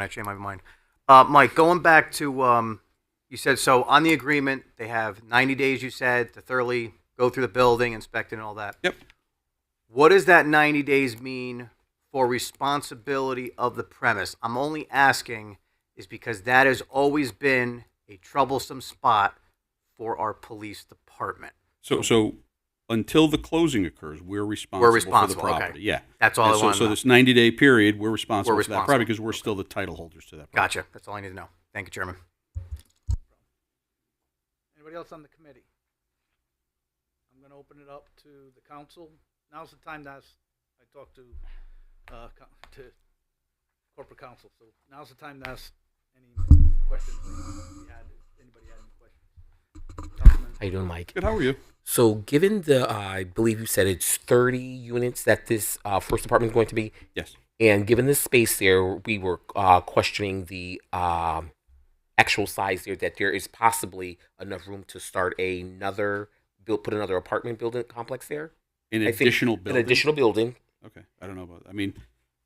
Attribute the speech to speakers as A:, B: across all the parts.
A: actually in my mind. Uh, Mike, going back to um, you said so on the agreement they have 90 days. You said to thoroughly go through the building, inspect it, and all that.
B: Yep.
A: What does that 90 days mean for responsibility of the premise? I'm only asking is because that has always been a troublesome spot for our police department.
B: So, so until the closing occurs, we're responsible,
A: responsible,
B: for the
A: okay.
B: property. Yeah.
A: That's all
B: And
A: I
B: so,
A: wanted to
B: so
A: know.
B: this 90 day period, we're responsible
A: We're
B: for that property because we're still the title holders to that property.
A: Gotcha. That's all I need to know. Thank you, Chairman.
C: Anybody else on the committee? I'm gonna open it up to the council. Now's the time to ask, I talked to, uh, co- to corporate council, so now's the time to ask any questions. that you had. Anybody had any questions? Councilman,
D: How you doing, Mike?
B: Good. How are you?
D: So, given the, uh, I believe you said it's 30 units that this uh, first apartment is going to be,
B: Yes.
D: and given the space there, we were uh, questioning the um, actual size there that there is possibly enough room to start another build, put another apartment building complex there.
B: An
D: I think
B: additional building.
D: An additional building.
B: Okay. I don't know about. I mean,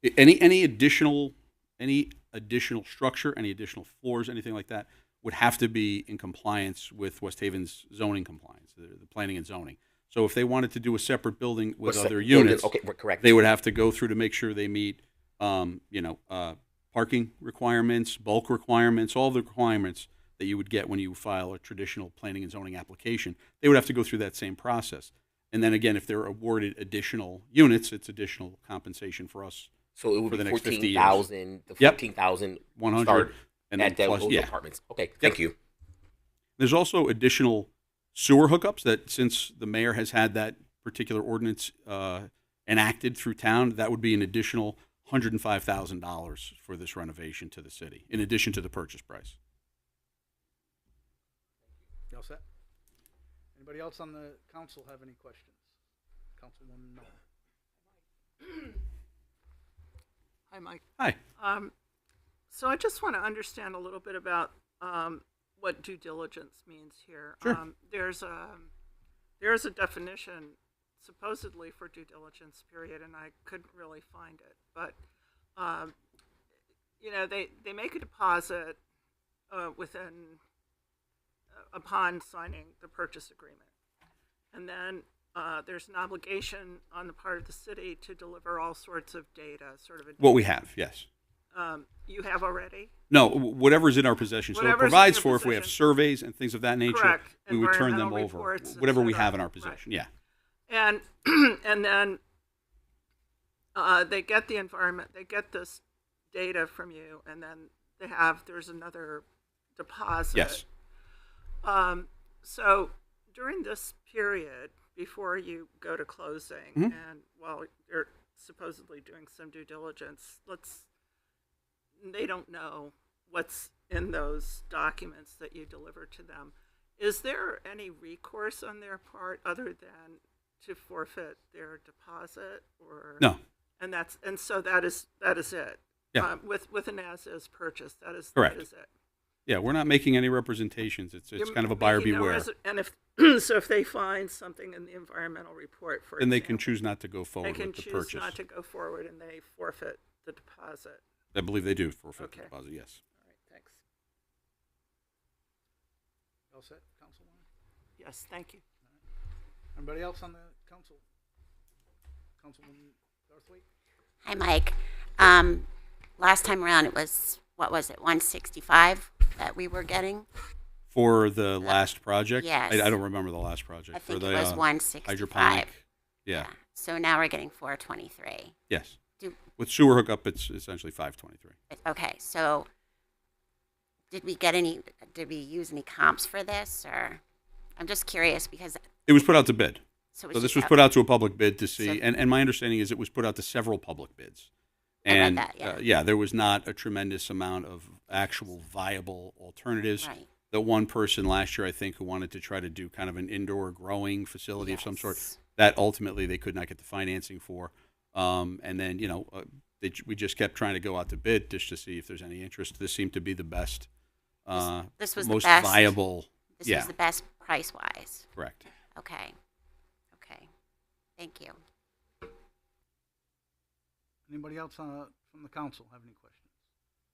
B: i- any any additional any additional structure, any additional floors, anything like that would have to be in compliance with West Haven's zoning compliance, the, the planning and zoning. So if they wanted to do a separate building with
D: What's that
B: other
D: building?
B: units,
D: Okay, we're correct.
B: they would have to go through to make sure they meet, um, you know, uh, parking requirements, bulk requirements, all the requirements that you would get when you file a traditional planning and zoning application. They would have to go through that same process. And then again, if they're awarded additional units, it's additional compensation for us,
D: so it would
B: for the
D: be
B: next 50 years.
D: 14,000, the
B: Yep.
D: 14,000
B: one hundred.
D: Start
B: And then
D: at that,
B: plus,
D: those
B: yeah.
D: apartments. Okay, thank you.
B: There's also additional sewer hookups that, since the mayor has had that particular ordinance uh, enacted through town, that would be an additional hundred and five thousand dollars for this renovation to the city, in addition to the purchase price.
C: you all set? Anybody else on the council have any questions? Councilwoman Miller?
E: Hi, Mike.
B: Hi.
E: Um, so I just want to understand a little bit about um, what due diligence means here.
B: Sure.
E: Um, there's a there's a definition supposedly for due diligence period, and I couldn't really find it. But um, you know, they they make a deposit uh, within uh, upon signing the purchase agreement. And then uh, there's an obligation on the part of the city to deliver all sorts of data, sort of a
B: What we have, yes.
E: um, you have already.
B: No, wh- whatever's in our possession. So it
E: Whatever's in
B: provides
E: your
B: for if we have
E: possession.
B: surveys and things of that nature,
E: Correct.
B: we would turn them
E: Environmental
B: over.
E: reports, et
B: Whatever we
E: cetera.
B: have in our
E: Right.
B: possession, yeah.
E: And and then uh, they get the environment, they get this data from you, and then they have there's another deposit.
B: Yes.
E: Um, so during this period before you go to closing,
B: Mm-hmm.
E: and while you're supposedly doing some due diligence, let's they don't know what's in those documents that you deliver to them. Is there any recourse on their part other than to forfeit their deposit or
B: No,
E: And that's and so that is that is it.
B: Yeah.
E: Um, with with an as is purchase, that is
B: Correct.
E: That is it.
B: yeah, we're not making any representations. It's, it's
E: You're
B: kind of a buyer
E: making no
B: beware.
E: res- And if, so if they find something in the environmental report, for
B: And they can
E: example,
B: choose not to go forward
E: They can
B: with the
E: choose
B: purchase.
E: not to go forward and they forfeit the deposit.
B: I believe they do forfeit the
E: Okay.
B: deposit, yes.
E: All right, thanks.
C: You all set, Councilwoman?
E: Yes, thank you.
C: Anybody else on the council? Councilwoman Garthwaite?
F: Hi, Mike. Um, last time around, it was, what was it, 165 that we were getting?
B: For the last project?
F: yes.
B: I, I don't remember the last project.
F: I
B: For
F: think it
B: the,
F: was
B: uh,
F: 165.
B: Hydroponic. Yeah,
F: So now we're getting 423.
B: yes.
F: Do-
B: With sewer hookup, it's essentially five twenty-three.
F: Okay, so did we get any, did we use any comps for this or? I'm just curious because.
B: It was put out to bid.
F: it
B: So this
F: just
B: was
F: out-
B: put out to a public bid to
F: So-
B: see, and, and my understanding is it was put out to several public bids.
F: I read
B: And,
F: that, yeah.
B: uh, yeah, there was not a tremendous amount of actual viable alternatives.
F: Right.
B: The one person last year, I think, who wanted to try to do kind of an indoor growing facility of some sort,
F: Yes.
B: that ultimately they could not get the financing for. Um, and then, you know, uh, they, ju- we just kept trying to go out to bid just to see if there's any interest. This seemed to be the best, uh,
F: this was the
B: most
F: best.
B: viable.
F: This
B: yeah,
F: was the best price wise.
B: correct.
F: Okay. Okay. Thank you.
C: Anybody else on, from the council have any questions?